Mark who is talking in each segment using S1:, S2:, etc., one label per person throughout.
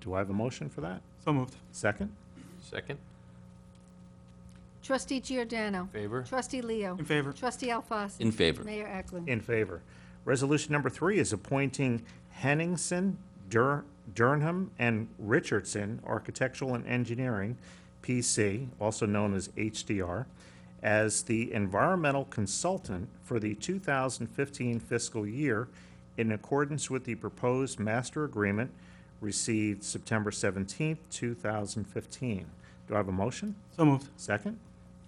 S1: Do I have a motion for that?
S2: So moved.
S1: Second?
S3: Second,
S4: Trustee Giordano.
S3: favor?
S4: Trustee Leo.
S2: In favor.
S4: Trustee Alfasi.
S5: In favor.
S4: Mayor Eklund.
S1: In favor. Resolution number three is appointing Henningsen, Dur- Durham, and Richardson Architectural and Engineering, PC, also known as HDR, as the environmental consultant for the 2015 fiscal year in accordance with the proposed master agreement received September 17, 2015. Do I have a motion?
S2: So moved.
S1: Second?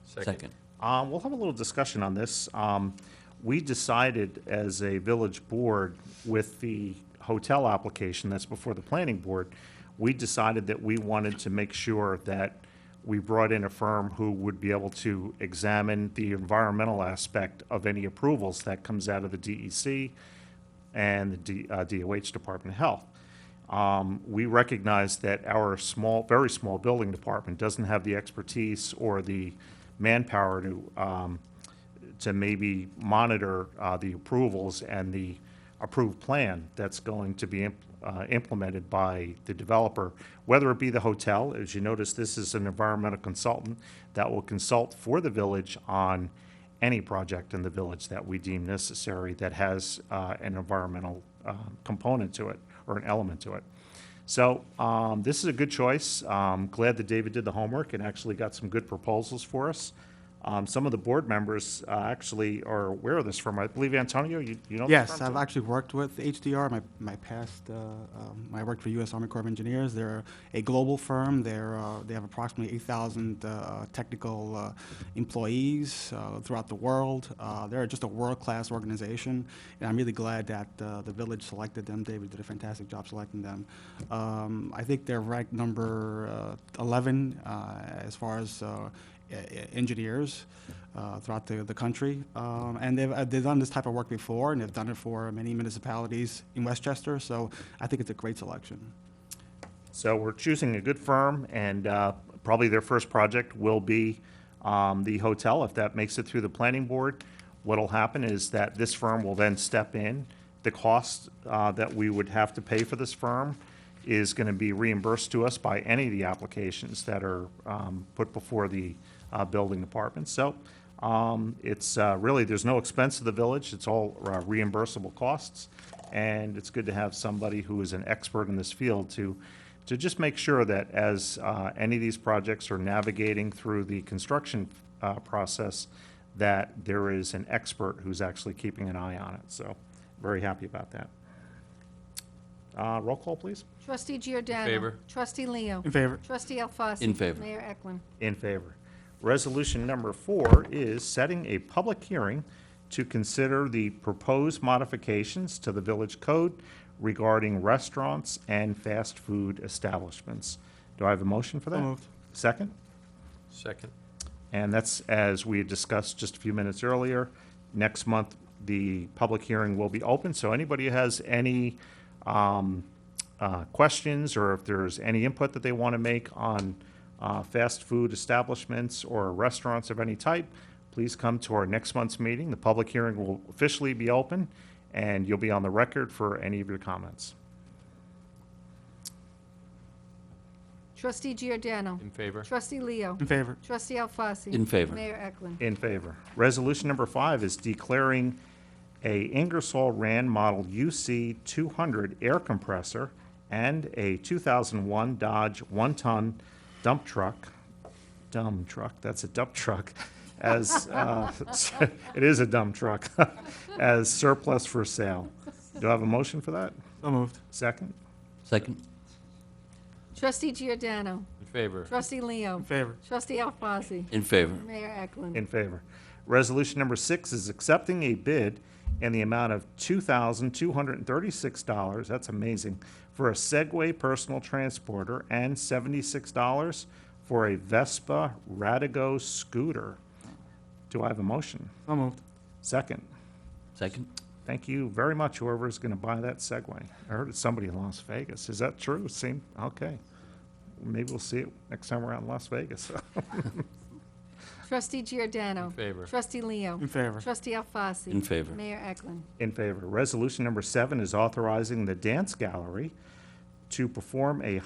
S5: Second.
S1: Um, We'll have a little discussion on this. Um, We decided as a village board with the hotel application that's before the planning board, we decided that we wanted to make sure that we brought in a firm who would be able to examine the environmental aspect of any approvals that comes out of the E DEC and the D- uh, DOH Department of Health. Um, We recognize that our small, very small building department doesn't have the expertise or the manpower to, um, to maybe monitor uh, the approvals and the approved plan that's going to be imp- uh, implemented by the developer, whether it be the hotel, as you notice, this is an environmental consultant that will consult for the village on any project in the village that we deem necessary that has uh, an environmental uh, component to it or an element to it. So um, this is a good choice. Um, Glad that David did the homework and actually got some good proposals for us. Um, Some of the board members uh, actually are aware of this firm. I believe, Antonio, you you know? this
S2: Yes,
S1: firm?
S2: I've actually worked with HDR. My, my past, uh, um, I worked for U.S. Army Corps of Engineers. They're a global firm. They're, uh, they have approximately 8,000 uh, technical uh, employees uh, throughout the world. Uh, they're just a world-class organization, and I'm really glad that uh, the village selected them. David did a fantastic job selecting them. Um, I think they're ranked number uh, 11 uh, as far as uh, e- e- engineers uh, throughout the, the country. Um, and they've, uh, they've done this type of work before, and they've done it for many municipalities in Westchester, so I think it's a great selection.
S1: So we're choosing a good firm, and uh, probably their first project will be um, the hotel. If that makes it through the planning board, what'll happen is that this firm will then step in. The cost uh, that we would have to pay for this firm is going to be reimbursed to us by any of the applications that are um, put before the uh, building department. So um, it's uh, really, there's no expense to the village, it's all uh, reimbursable costs, and it's good to have somebody who is an expert in this field to, to just make sure that as uh, any of these projects are navigating through the construction uh, process, that there is an expert who's actually keeping an eye on it, so very happy about that. Uh, Roll call, please.
S4: Trustee Giordano.
S3: favor.
S4: Trustee Leo.
S2: In favor?
S4: Trustee Alfasi.
S5: In favor.
S4: Mayor Eklund.
S1: In favor. Resolution number four is setting a public hearing to consider the proposed modifications to the village code regarding restaurants and fast food establishments. Do I have a motion for that?
S2: moved.
S1: Second?
S3: Second,
S1: And that's, as we had discussed just a few minutes earlier, next month, the public hearing will be open, so anybody who has any um, uh, questions, or if there's any input that they want to make on uh, fast food establishments or restaurants of any type, please come to our next month's meeting. The public hearing will officially be open, and you'll be on the record for any of your comments.
S4: Trustee Giordano.
S3: in favor?
S4: Trustee Leo.
S2: In favor?
S4: Trustee Alfasi.
S5: In favor.
S4: Mayor Eklund.
S1: In favor. Resolution number five is declaring a Ingersoll Rand Model UC 200 air compressor and a 2001 Dodge one-ton dump truck, dump truck, that's a dump truck, as, uh, it is a dump truck, as surplus for sale. Do I have a motion for that?
S2: So moved.
S1: Second?
S5: Second.
S4: Trustee Giordano.
S3: In favor?
S4: Trustee Leo.
S2: In favor?
S4: Trustee Alfasi.
S5: In favor.
S4: Mayor Eklund.
S1: In favor. Resolution number six is accepting a bid in the amount of $2,236, that's amazing, for a Segway personal transporter and $76 for a Vespa Radigo scooter. Do I have a motion?
S2: So moved.
S1: Second.
S5: Second.
S1: Thank you very much, whoever's going to buy that Segway. I heard it's somebody in Las Vegas. Is that true? Seem, okay. Maybe we'll see it next time we're out in Las Vegas.
S4: Trustee Giordano.
S3: In favor.
S4: Trustee Leo.
S2: In favor?
S4: Trustee Alfasi.
S5: In favor.
S4: Mayor Eklund.
S1: In favor. Resolution number seven is authorizing the dance gallery to perform a